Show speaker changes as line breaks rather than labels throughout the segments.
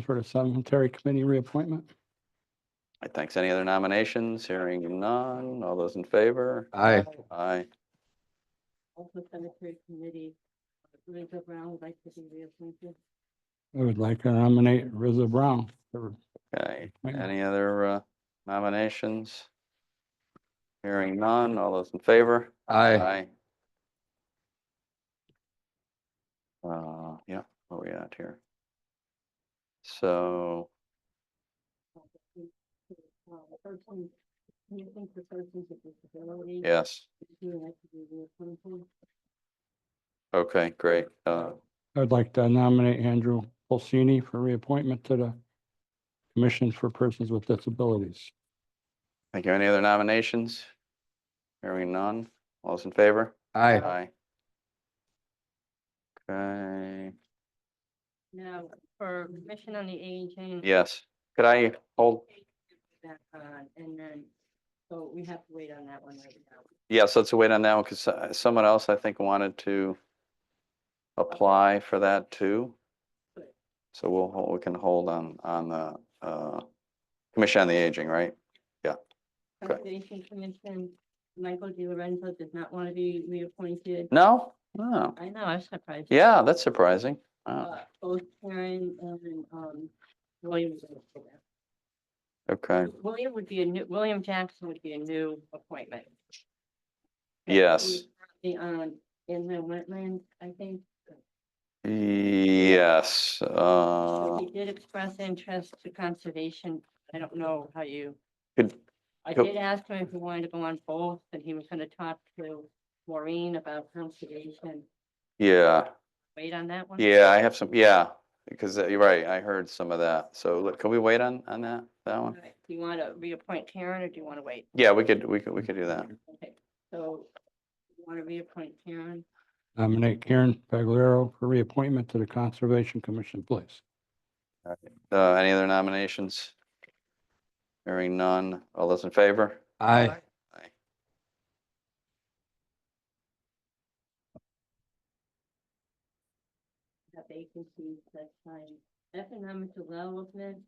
for the cemetery committee reappointment.
I Thanks. Any other nominations? Hearing none. All those in favor?
Aye.
Aye.
Also cemetery committee, Rizzo Brown would like to be reappointed.
I would like to nominate Rizzo Brown. for-
Okay.
Right.
Any other uh, nominations? Hearing none. All those in favor?
Aye.
Aye. Uh, yeah, where we at here? So,
Uh, person- Anything for persons with disabilities.
yes,
He would like to be reappointed.
okay, great. Uh,
I would like to nominate Andrew Pulsini for reappointment to the Commission for Persons with Disabilities.
thank you. Any other nominations? Hearing none. All those in favor?
Aye.
Aye. Okay,
Now, for commission on the aging.
yes. Could I hold,
That, uh, and then, so we have to wait on that one right now.
yes, let's wait on that one because someone else, I think, wanted to apply for that too.
But-
So we'll, hol- we can hold on, on the, uh, Commission on the Aging, right? Okay.
Conservation Commission, Michael Di Lorenzo does not want to be reappointed.
No? No.
I know, I was surprised.
Yeah, that's surprising. Wow,
Uh, Both Karen and, um, William. is gonna go back.
Okay,
William would be a new, William Jackson would be a new appointment.
Yes.
The, um, in the wetland, I think,
yes,
So
uh,
he did express interest to conservation. I don't know how you.
could,
I
Yep.
did ask him if he wanted to go on both, and he was gonna talk to Maureen about conservation.
yeah,
Wait on that one?
yeah, I have some, yeah, because uh, you're right, I heard some of that. So look, can we wait on, on that, that
All
one?
right. Do you want to reappoint Karen, or do you want to wait?
Yeah, we could, we could, we could do that.
Okay, so you want to reappoint Karen?
Nominate Karen Pagliaro for reappointment to the Conservation Commission, please.
Uh, any other nominations? Hearing none. All those in favor?
Aye.
Have vacancies that time, economic development,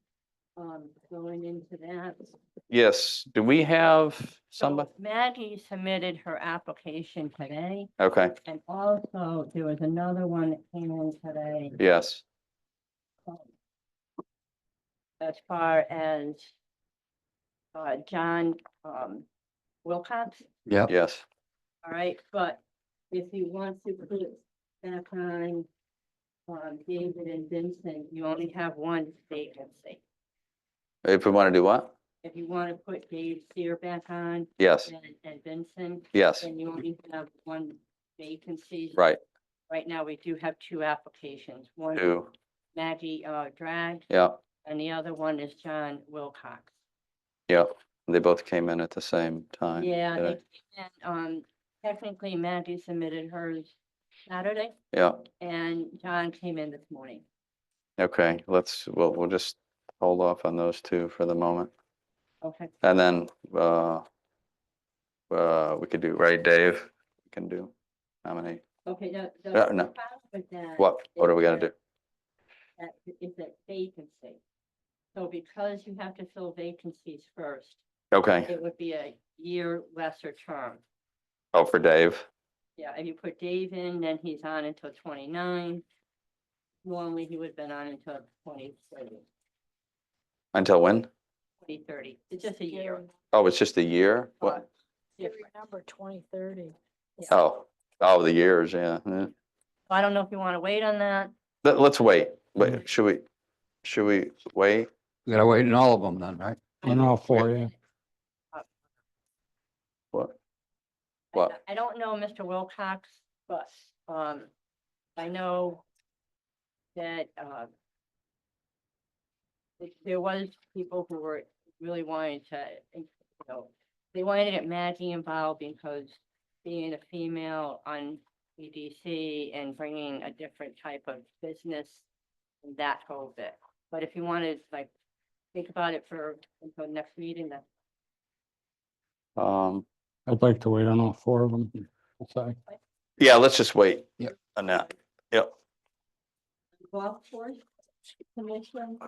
um, going into that. So
Yes, do we have somebody?
Maggie submitted her application today,
Okay,
and also there was another one that came in today.
yes,
as far as uh, John um, Wilcox,
Yep.
yes.
all right, but if you want to put back on um, David and Vincent, you only have one vacancy.
If we want to do what?
If you want to put Dave Seer back on
Yes,
and and Vincent,
yes,
then you only have one vacancy.
right,
Right now, we do have two applications, one
two,
Maggie uh, Drag,
yeah,
and the other one is John Wilcox.
yeah. They both came in at the same time.
Yeah,
today.
they came in, um, technically Maggie submitted hers Saturday
Yeah,
and John came in this morning.
okay, let's, we'll, we'll just hold off on those two for the moment.
Okay,
And then, uh, uh, we could do, right, Dave? We Can do nominate.
okay, the, the.
Uh, no.
the problem with that
What, what
is
are we gonna do?
that- That is that vacancy. So because you have to fill vacancies first,
Okay,
it would be a year lesser term.
oh, for Dave,
Yeah, if you put Dave in, then he's on until twenty-nine. Normally he would have been on until 2030.
until when?
2030. It's just a year.
Oh, it's just a year? What?
difference.
Number twenty thirty.
Oh, oh, the years, yeah. yeah.
So I don't know if you want to wait on that.
Let, let's wait, wait, should we, should we wait?
We gotta wait in all of them then, right?
On all four, Oh, yeah.
What?
I-
What?
I don't know Mr. Wilcox, but, um, I know that, uh, th- there was people who were really wanting to, you know, they wanted to get Maggie involved because being a female on EDC and bringing a different type of business, that whole bit. But if you wanted, like, think about it for, until next meeting, that's
Um,
I'd like to wait on all four of them. Sorry.
yeah, let's just wait.
Yep.
On that, yep.
golf course commission.